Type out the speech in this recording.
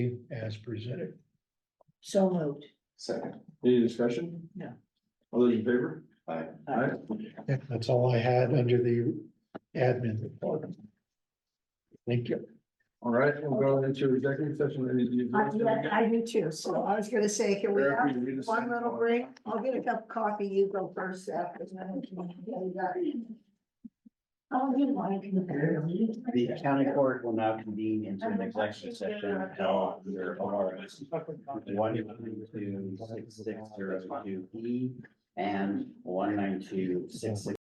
as presented. So moved. Second. Any discussion? No. All those in favor? Aye. Aye. Yeah, That's all I had under the admin report. Thank you. All right, we'll go into executive session. Any- you- Uh, yeah, I do too. So I was gonna say, can we Eric, have will you read us one that? little break? I'll get a cup of coffee. You go first after. I'll get one. The county court will now convene into an executive session held under ORS one ninety-two six six zero two E and one ninety-two six six